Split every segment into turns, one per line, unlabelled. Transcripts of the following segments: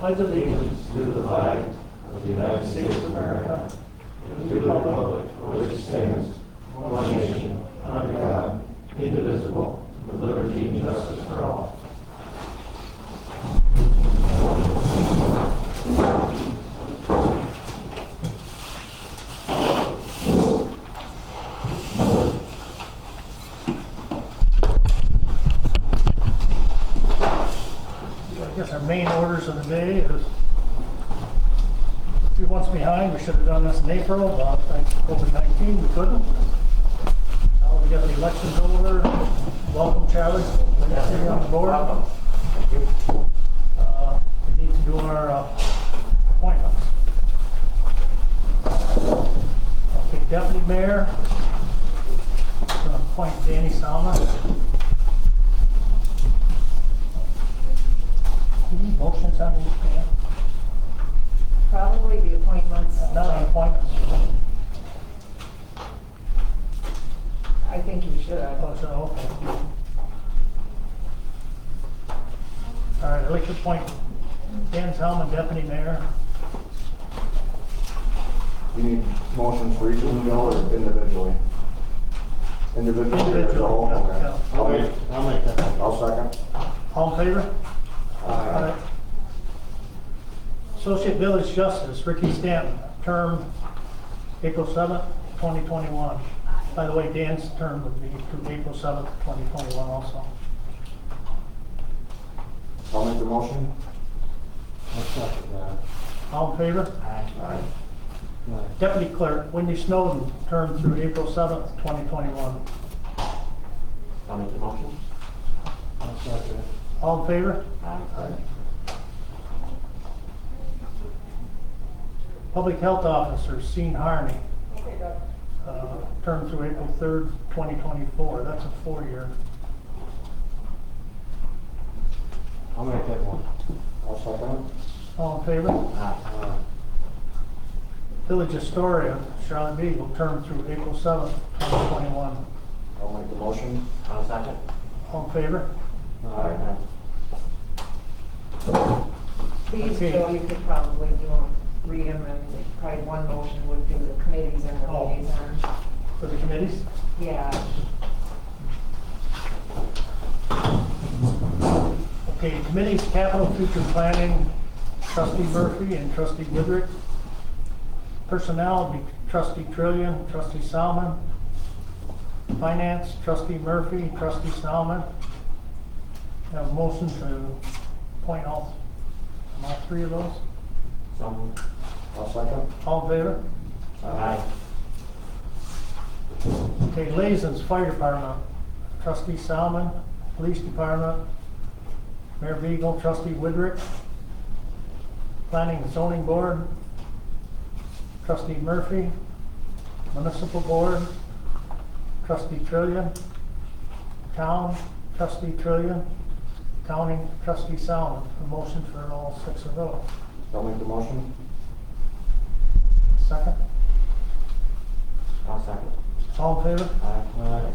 pledge allegiance
to the flag of the United States of America and to the republic for which it stands, one nation, under God, indivisible, with liberty and justice for all.
I guess our main orders of the day is, a few months behind, we should have done this in April, but thanks to COVID-19, we couldn't. Now we got the elections over, welcome Charlie, Nice to have you on the board. Uh, We need to do our uh, appointments. Okay, deputy mayor, gonna appoint Danny Salma. Any motions on uh, these, Dan?
Probably the appointments,
Not on appointments,
I think you should.
I thought so, uh, okay. All right, I'd like to appoint Dan Zelman, deputy mayor.
You need motions for each of them, or individually? Individually? or as a whole?
Individually, yeah,
Okay. I'll make, I'll second.
All in favor?
Aye.
Associate village justice, Ricky Stanton, term April 7th, 2021. By the way, Dan's term would be to April 7th, 2021 also.
I'll make the motion.
All in favor?
Aye.
Deputy clerk, Wendy Snowden, term through April 7th, 2021.
I'll make the motion.
All in favor?
Aye.
Public Health Officer, Sean Harney. uh, Term through April 3rd, 2024. That's a four-year.
I'll make that one. I'll second.
All in favor?
Uh,
Village Astoria, Charlotte Beagle, term through April 7th, 2021.
I'll make the motion.
I'll second.
All in favor?
Aye.
These, Joe, you could probably do them, read them, and probably one motion would do the committees and the
Oh.
liaisons.
For the committees?
Yeah,
Okay, committees, capital future planning, trustee Murphy and trustee Goodrich. Personnel, would be trustee Trillian, trustee Salmon. Finance, trustee Murphy, trustee Salmon. Have a motion to appoint all, all three of those.
Some.
I'll second.
All in favor?
Aye.
Okay, Lazen's Fire Department, trustee Salmon, Police Department, Mayor Beagle, trustee Woodrick, Planning and Zoning Board, trustee Murphy, Municipal Board, trustee Trillian, Town, trustee Trillian, County, trustee Salmon. A motion for all six of those.
I'll make the motion.
Second,
I'll second.
all in favor?
Aye.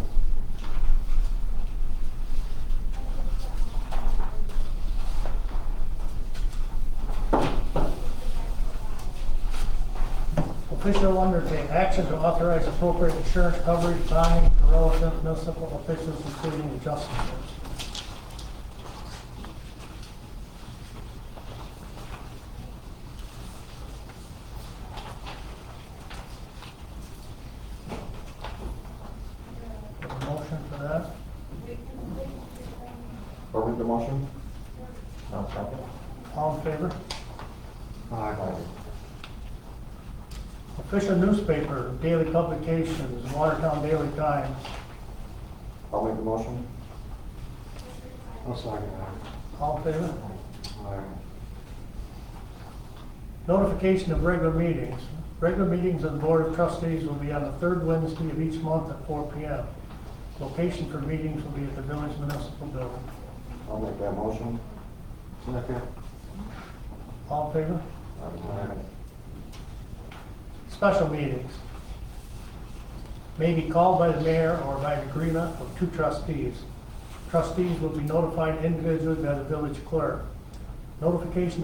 Official undertake action to authorize appropriate insurance coverage bonding for relevant municipal officials, including adjustments. Motion for that?
I'll make the motion.
I'll second.
All in favor?
Aye.
Official newspaper, daily publications, Watertown Daily Times.
I'll make the motion. I'll second that.
All in favor?
Aye.
Notification of regular meetings. Regular meetings of the Board of Trustees will be on the third Wednesday of each month at 4 PM. Location for meetings will be at the Village Municipal Building.
I'll make that motion. Second.
All in favor? Special meetings. May be called by the mayor or by agreement of two trustees. Trustees will be notified individually by the village clerk. Notification